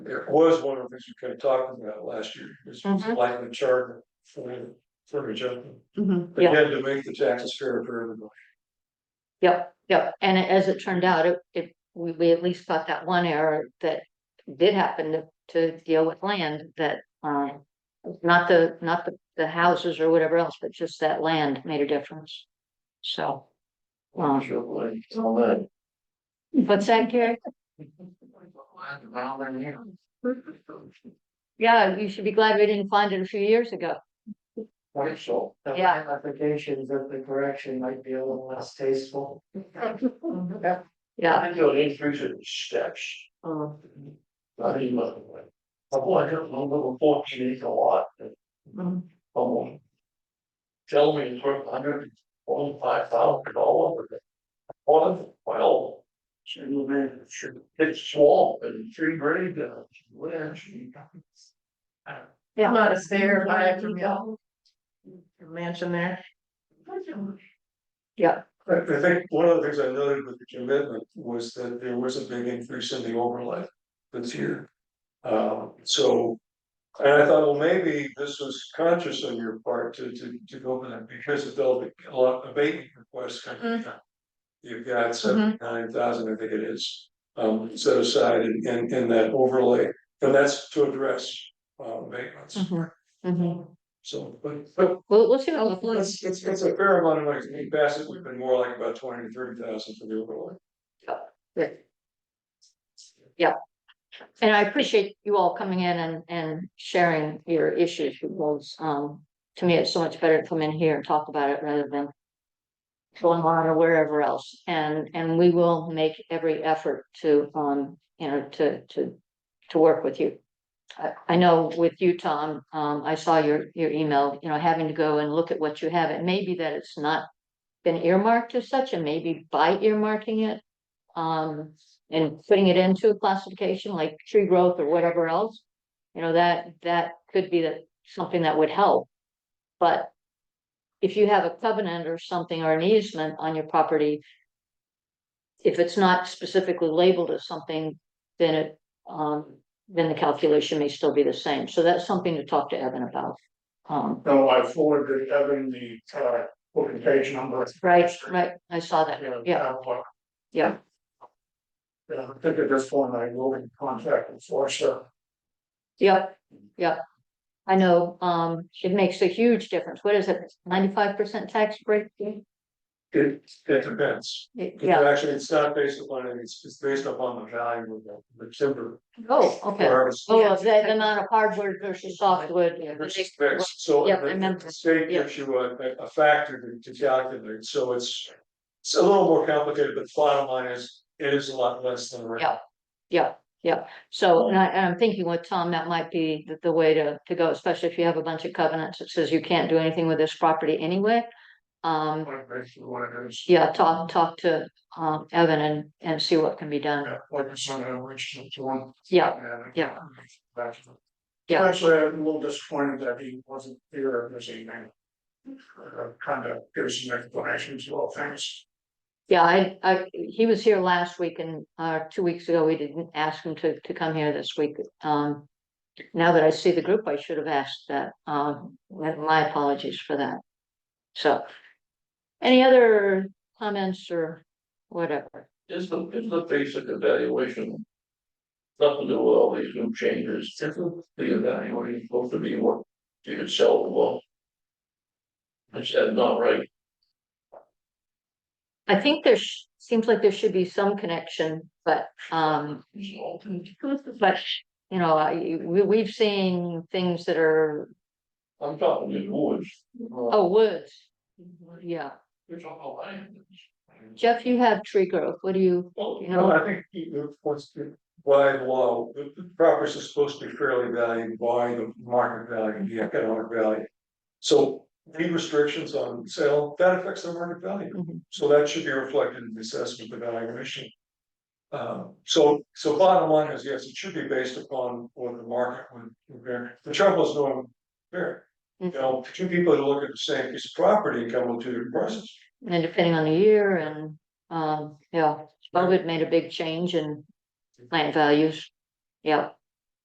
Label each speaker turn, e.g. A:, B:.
A: There was one of the things we kind of talked about last year, was
B: Mhm.
A: lightening the charter for, for adjustment.
B: Mhm,
A: They
B: yeah,
A: had to make the taxes fair for everybody.
B: yep, yep, and as it turned out, it, it, we, we at least got that one error that did happen to, to deal with land that, um. Not the, not the, the houses or whatever else, but just that land made a difference, so. Um,
A: It's all that.
B: what's that, Gary? Yeah, you should be glad we didn't find it a few years ago.
C: Partial. The
B: Yeah.
C: Ramifications of the correction might be a little less tasteful.
B: Yeah,
A: I know they increase it in steps.
D: Uh-huh.
B: um,
A: I mean, look, I bought a little fourteen acre lot. that
D: Uh-huh.
B: Mhm.
A: Someone. Tell me it's worth hundred and forty-five thousand dollars. One of well. Should have been, should, it's swamp and tree grade, uh, where she.
B: yeah.
D: Not a stair, I have to go. Mansion there.
A: I, I think one of the things I noted with the commitment was that there was a big increase in the overlay this year. Um, so, and I thought, well, maybe this was conscious on your part to, to, to go with that because of all the, a lot of abatement requests coming down. You've got seventy-nine thousand, I think it is, um, set aside in, in, in that overlay, and that's to address, uh, abatements.
B: mhm, mhm.
A: So, but, but
B: We'll, we'll see. what
A: well,
B: happens.
A: It's, it's, it's a fair amount of money, in Bassett, we've been more like about twenty to thirty thousand for the overlay.
B: And I appreciate you all coming in and, and sharing your issues because, um, to me, it's so much better to come in here and talk about it rather than going on or wherever else. And, and we will make every effort to, um, you know, to, to, to work with you. I, I know with you, Tom, um, I saw your, your email, you know, having to go and look at what you have. It may be that it's not been earmarked as such and maybe by earmarking it. Um, and putting it into a classification like tree growth or whatever else. You know, that, that could be that, something that would help. But if you have a covenant or something or an easement on your property. If it's not specifically labeled as something, then it, um, then the calculation may still be the same. So that's something to talk to Evan about. Um,
A: No, I forwarded Evan the, uh, booking page number.
B: right, right, I saw that, yeah, yeah,
A: Yeah, I think at this point I will be contacting Forster.
B: yeah, yeah. I know, um, it makes a huge difference. What is it, ninety-five percent tax break?
A: It, it depends. It's
B: Yeah,
A: Actually, it's not based upon, it, it's, it's based upon the value of the- the timber.
B: oh, okay.
A: harvest.
B: Oh, the the amount of hardwood versus softwood. yeah, the
A: Versus
B: mixed-
A: fixed. So
B: yeah, I remember.
A: the state
B: Yeah.
A: gives you a, a- a factor to- to calculate, so it's. It's a little more complicated, but bottom line is, it is a lot less than. rent.
B: Yeah. Yeah, yeah. So and I and I'm thinking with Tom, that might be the the way to to go, especially if you have a bunch of covenants that says you can't do anything with this property anyway. Um,
A: Like, basically what it is.
B: yeah, talk talk to um Evan and and see what can be done.
A: Yeah, like I said, I reached out to him.
B: Yeah,
A: and- uh,
B: yeah. Yeah.
A: Actually, I'm a little disappointed that he wasn't here this evening. Uh, Kind of gives some explanations, well, thanks.
B: yeah, I I, he was here last week and uh two weeks ago, we didn't ask him to to come here this week. Um. Now that I see the group, I should have asked that. Um, my apologies for that. So. Any other comments or whatever?
E: Is the, is the basic evaluation? Nothing to do with all these new changes, isn't the evaluation supposed to be what you could sell the well? Is that not right?
B: I think there sh- seems like there should be some connection, but um, but you know, I, we we've seen things that are,
E: I'm talking these woods.
B: oh, woods. Yeah,
E: You're talking about land.
B: Jeff, you have tree growth. What do you,
E: Well,
B: you
A: No,
B: know?
A: I think he wants to, by law, the the property is supposed to be fairly valued by the market value, the economic value. So any restrictions on sale, that affects the market value.
B: Mhm.
A: So that should be reflected in the assessment of the valuation. Uh, so, so bottom line is, yes, it should be based upon what the market would bear. The trouble is no one bear. You know, two people who look at the same piece of property come with two different prices.
B: And depending on the year and, um, yeah, COVID made a big change in land values. Yeah,